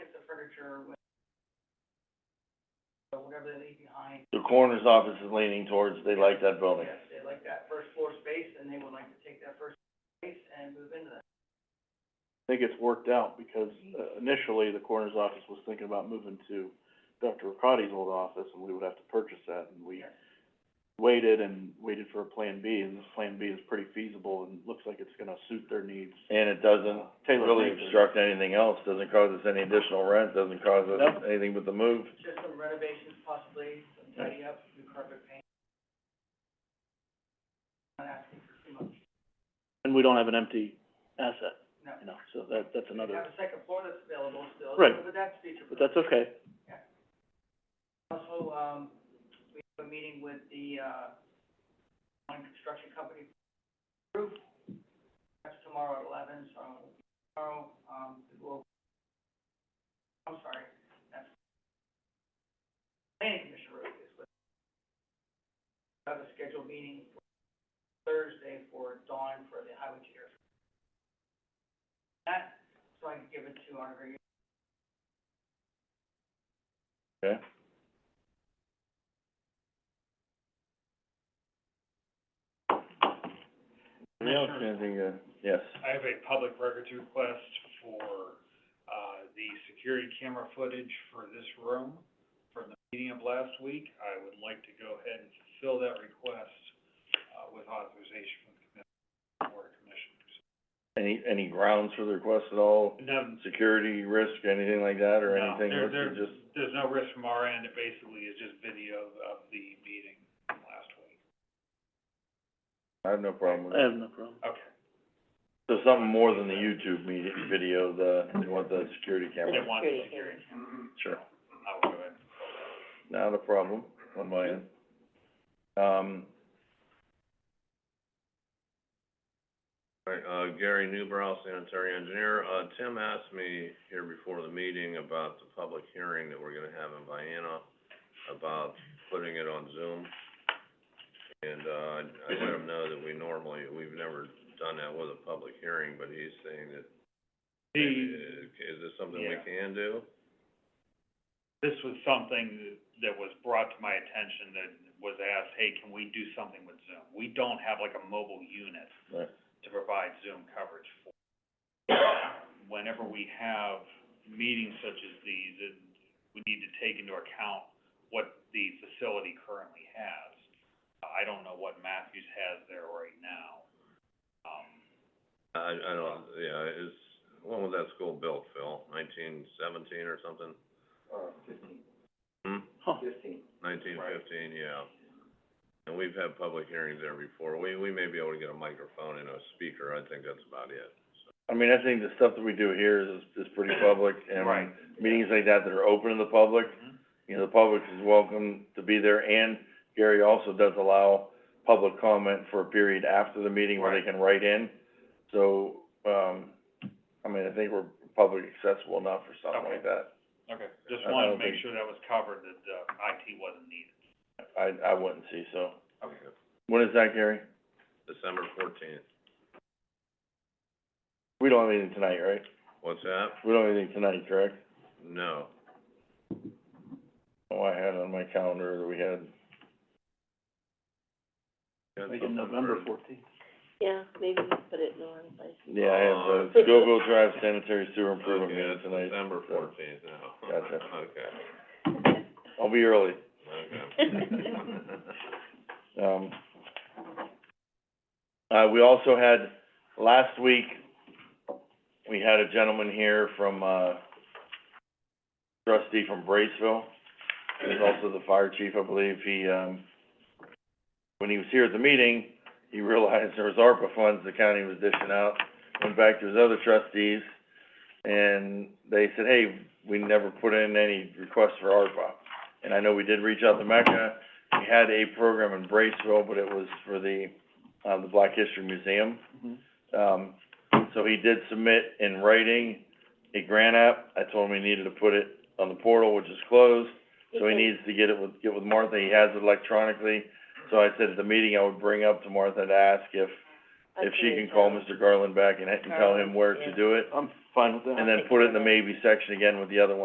furniture, with- or whatever they leave behind. The coroner's office is leaning towards, they like that building. Yes, they like that first floor space, and they would like to take that first space and move into that. I think it's worked out because Mm-hmm. uh, initially the coroner's office was thinking about moving to Dr. Ricotti's old office and we would have to purchase that and we Yes. waited and waited for a plan B and this plan B is pretty feasible and looks like it's gonna suit their needs. Uh, And it doesn't Taylor really Franklin. obstruct anything else, doesn't cause us any additional rent, doesn't cause us Nope. anything but the move. Just some renovations possibly, some tidy up, new carpet paint. Not asking for too much. And we don't have an empty asset, No. you know, so that, that's We another, have a second floor that's available still. Right. But that's future. but that's okay. Also, um, we have a meeting with the, uh, one construction company group. That's tomorrow at eleven, so tomorrow, um, we'll, I'm sorry, that's planning commission roof is what. Have a scheduled meeting for Thursday for dawn for the highway chair. That, so I can give it to our, Okay. Yeah, Commissioner. anything, uh, yes. I have a public records request for, uh, the security camera footage for this room from the meeting of last week. I would like to go ahead and fulfill that request, uh, with authorization from the commission, board of commissioners. Any, any grounds for the request at all? None, Security risk, anything like that, or no, anything? there, Let's there- just- there's no risk from our end. It basically is just video of the meeting from last week. I have no problem with I Uh, it. have no problem. Okay. So something more than the YouTube media, video, the, they want the security They camera. want the security camera. Sure. I will go ahead. Not a problem on my end. Um. All right, uh, Gary Newbrow, sanitary engineer. Uh, Tim asked me here before the meeting about the public hearing that we're gonna have in Vienna about putting it on Zoom. And, uh, I let him know that we normally, we've never done that with a public hearing, but he's saying that maybe, The, uh, is this something we Yeah. can do? this was something that, that was brought to my attention that was asked, hey, can we do something with Zoom? We don't have like a mobile unit Right. to provide Zoom coverage for. Whenever we have meetings such as these, it, we need to take into account what the facility currently has. I don't know what Matthews has there right now. Um, I, I don't, yeah, is, when was that school built, Phil? Nineteen seventeen or something? Hmm? Huh. Nineteen fifteen, yeah. And we've had public hearings there before. We, we may be able to get a microphone and a speaker. I think that's about it. I mean, I think the stuff that we do here is, is pretty public, and Right. meetings like that that are open to the public, Mhm. you know, the public is welcome to be there, and Gary also does allow public comment for a period after the meeting where they Right. can write in. So, um, I mean, I think we're public accessible enough for something like that. okay, just I- I wanted to don't make think- sure that was covered, that, uh, IT wasn't needed. I, I wouldn't see, so. Okay. When is that, Gary? December fourteenth. We don't have anything tonight, right? What's that? We don't have anything tonight, correct? No. Oh, I had on my calendar that we had, Yeah, I think in November fourteenth. Yeah, maybe put it in the wrong place. yeah, I Oh. had the Scoville Drive sanitary sewer improvement Okay, meeting it's tonight. December so fourteenth now. Gotcha. Okay, I'll be early. okay. Um, uh, we also had, last week, we had a gentleman here from, uh, trustee from Braceville. He's also the fire chief, I believe. He, um, when he was here at the meeting, he realized there was ARPA funds the county was dishing out. Went back to his other trustees, and they said, hey, we never put in any requests for ARPA. And I know we did reach out to Mecca, we had a program in Braceville, but it was for the, uh, the Black History Museum. Mm-hmm. Um, so he did submit in writing a grant app. I told him he needed to put it on the portal, which is closed. So he needs to get it with, get with Martha. He has it electronically. So I said at the meeting, I would bring up to Martha to ask if, if she can call Mr. Garland back and, and tell him where to do it. I'm fine with that. And then put it in the maybe section again with the other one.